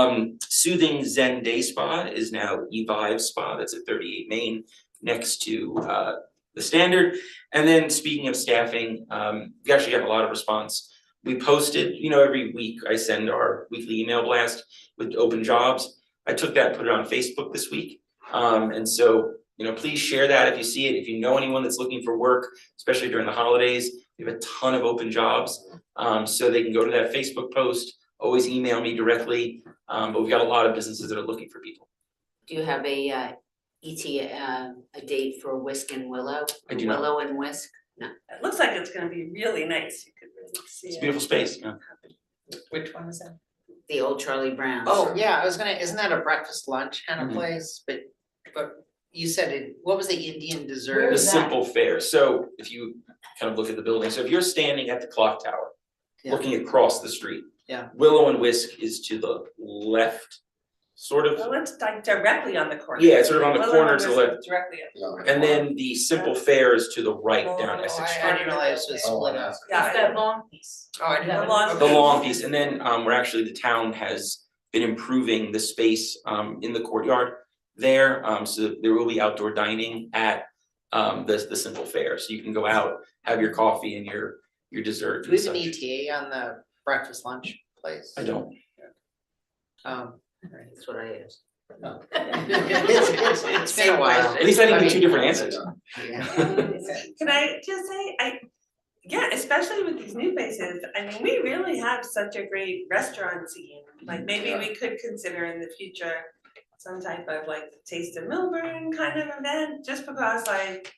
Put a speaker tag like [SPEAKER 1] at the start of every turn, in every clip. [SPEAKER 1] Um, Soothing Zen Day Spa is now Evive Spa, that's at thirty-eight Main, next to uh the standard. And then speaking of staffing, um, we actually got a lot of response. We posted, you know, every week I send our weekly email blast with open jobs. I took that, put it on Facebook this week. Um, and so, you know, please share that if you see it, if you know anyone that's looking for work, especially during the holidays. We have a ton of open jobs, um, so they can go to that Facebook post, always email me directly. Um, but we've got a lot of businesses that are looking for people.
[SPEAKER 2] Do you have a uh ET uh a date for Whisk and Willow?
[SPEAKER 1] I do not.
[SPEAKER 2] Willow and Whisk,
[SPEAKER 3] It looks like it's gonna be really nice, you could really see it.
[SPEAKER 1] It's a beautiful space, yeah.
[SPEAKER 4] Which one is that?
[SPEAKER 2] the old Charlie Brown.
[SPEAKER 4] Oh, yeah, I was gonna, isn't that a breakfast lunch kind
[SPEAKER 1] Mhm.
[SPEAKER 4] of place, but, but you said it, what was the Indian dessert?
[SPEAKER 3] Where
[SPEAKER 1] The
[SPEAKER 3] is that?
[SPEAKER 1] simple fare, so if you kind of look at the building, so if you're standing at the clock tower,
[SPEAKER 4] Yeah.
[SPEAKER 1] looking across the street.
[SPEAKER 4] Yeah.
[SPEAKER 1] Willow and Whisk is to the left, sort of,
[SPEAKER 3] Well, it's like directly on the corner.
[SPEAKER 1] Yeah, it's sort of on the
[SPEAKER 3] Well,
[SPEAKER 1] corner to the
[SPEAKER 3] it's
[SPEAKER 1] left.
[SPEAKER 3] Directly, up.
[SPEAKER 1] and then the simple fare is to the right down
[SPEAKER 4] Oh,
[SPEAKER 1] Essex
[SPEAKER 4] I-
[SPEAKER 1] Street.
[SPEAKER 4] I didn't realize it was
[SPEAKER 5] Oh,
[SPEAKER 4] split
[SPEAKER 5] I
[SPEAKER 4] up.
[SPEAKER 3] yeah.
[SPEAKER 6] It's that long piece.
[SPEAKER 4] Oh, I
[SPEAKER 6] The
[SPEAKER 4] didn't.
[SPEAKER 3] long-
[SPEAKER 4] okay.
[SPEAKER 1] The long piece, and then um we're actually, the town has been improving the space um in the courtyard there, um so there will be outdoor dining at um the the simple fair, so you can go out, have your coffee and your your dessert
[SPEAKER 4] Do
[SPEAKER 1] and
[SPEAKER 4] we have an
[SPEAKER 1] such.
[SPEAKER 4] ETA on the breakfast lunch place?
[SPEAKER 1] I don't,
[SPEAKER 4] Um,
[SPEAKER 2] That's what I asked.
[SPEAKER 4] it's, it's, it's been a while.
[SPEAKER 1] at least I didn't
[SPEAKER 4] mean,
[SPEAKER 1] get two different answers.
[SPEAKER 4] yeah.
[SPEAKER 3] Can I just say, I, yeah, especially with these new faces, I mean, we really have such a great restaurant scene. Like maybe we could consider in the future some type of like Taste of Milburn kind of event, just because like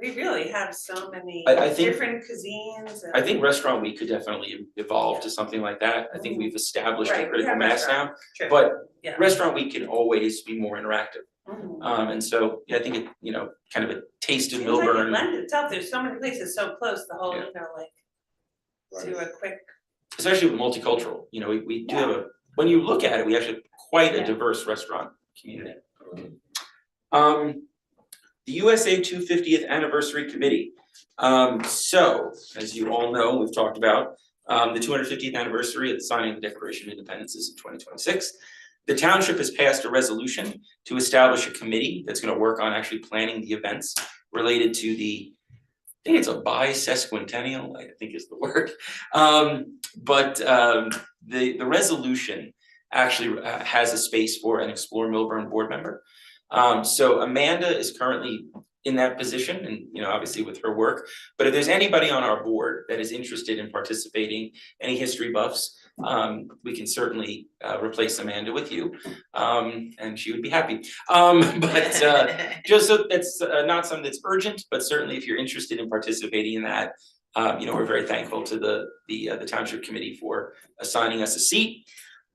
[SPEAKER 3] we really have so many
[SPEAKER 1] I- I think-
[SPEAKER 3] different cuisines and.
[SPEAKER 1] I think restaurant week could definitely evolve to something like that, I think we've established
[SPEAKER 3] Right,
[SPEAKER 1] a
[SPEAKER 3] we
[SPEAKER 1] critical
[SPEAKER 3] have
[SPEAKER 1] mass now,
[SPEAKER 3] restaurant, true.
[SPEAKER 1] but
[SPEAKER 3] Yeah.
[SPEAKER 1] restaurant week can always be more interactive.
[SPEAKER 3] Mhm.
[SPEAKER 1] Um and so, yeah, I think it, you know, kind of a taste of
[SPEAKER 3] Seems like
[SPEAKER 1] Millburn.
[SPEAKER 3] it lends itself, there's so many places so close, the whole, you know, like, do a quick,
[SPEAKER 1] especially with multicultural, you know, we we do have a, when you look at it, we actually have quite a
[SPEAKER 3] Yeah.
[SPEAKER 1] diverse restaurant community. Um, the USA two fiftieth anniversary committee, um, so, as you all know, we've talked about, um, the two hundred fiftieth anniversary of the signing of the Declaration of Independence is in twenty twenty six. The township has passed a resolution to establish a committee that's gonna work on actually planning the events related to the, I think it's a bi-sesquicentennial, I think is the word, um, but um the the resolution actually uh, has a space for an Explore Milburn board member. Um so Amanda is currently in that position and you know obviously with her work, but if there's anybody on our board that is interested in participating, any history buffs, um we can certainly uh replace Amanda with you. Um and she would be happy. Um but uh just so that's uh, not something that's urgent, but certainly if you're interested in participating in that, um, you know, we're very thankful to the, the, uh, the township committee for assigning us a seat.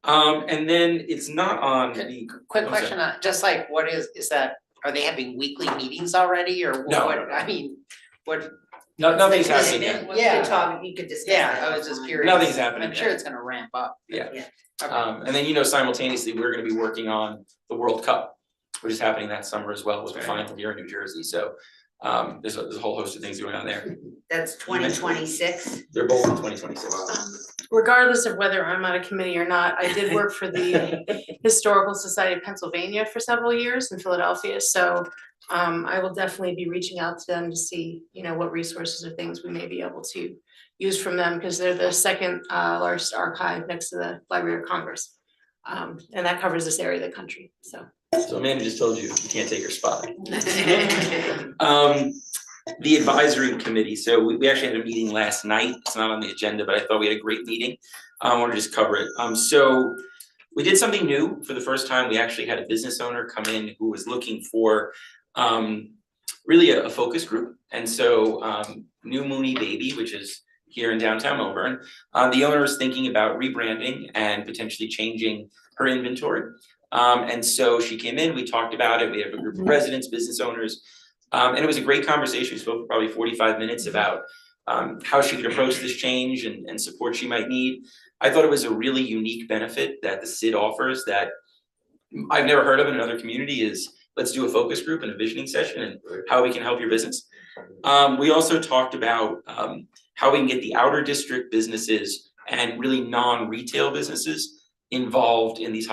[SPEAKER 1] Um, and then it's not on the,
[SPEAKER 4] Quick
[SPEAKER 1] I'm sorry.
[SPEAKER 4] question, on just like, what is, is that, are they having weekly meetings already, or
[SPEAKER 1] No.
[SPEAKER 4] what, I mean, what,
[SPEAKER 1] no, nothing's
[SPEAKER 4] It's-
[SPEAKER 1] happening yet.
[SPEAKER 4] Yeah.
[SPEAKER 2] talk, you could discuss
[SPEAKER 4] yeah,
[SPEAKER 2] that
[SPEAKER 4] I was just
[SPEAKER 2] offline.
[SPEAKER 4] curious.
[SPEAKER 1] Nothing's happening
[SPEAKER 4] I'm sure
[SPEAKER 1] yet.
[SPEAKER 4] it's gonna ramp up.
[SPEAKER 1] Yeah.
[SPEAKER 2] Yeah.
[SPEAKER 4] Okay.
[SPEAKER 1] Um, and then, you know, simultaneously, we're gonna be working on the World Cup, which is happening that summer as well, with the final here in New Jersey, so. Um, there's a, there's a whole host of things going on there.
[SPEAKER 2] That's twenty twenty six.
[SPEAKER 1] They're both in twenty twenty six.
[SPEAKER 6] Regardless of whether I'm on a committee or not, I did work for the Historical Society of Pennsylvania for several years in Philadelphia, so um, I will definitely be reaching out to them to see, you know, what resources or things we may be able to use from them, because they're the second uh, largest archive next to the Library of Congress. Um, and that covers this area of the country, so.
[SPEAKER 1] So Amanda just told you, you can't take her spot. Um, the advisory committee, so we, we actually had a meeting last night, it's not on the agenda, but I thought we had a great meeting. I wanna just cover it, um, so we did something new for the first time, we actually had a business owner come in who was looking for, um, really a, a focus group, and so, um, New Mooney Baby, which is here in downtown Melbourne, uh, the owner is thinking about rebranding and potentially changing her inventory. Um, and so she came in, we talked about it, we have a group of residents, business owners, um, and it was a great conversation, we spoke for probably forty-five minutes about um, how she could approach this change and, and support she might need. I thought it was a really unique benefit that the SID offers that I've never heard of in another community is, let's do a focus group and a visioning session and how we can help your business. Um, we also talked about, um, how we can get the outer district businesses and really non-retail businesses involved in these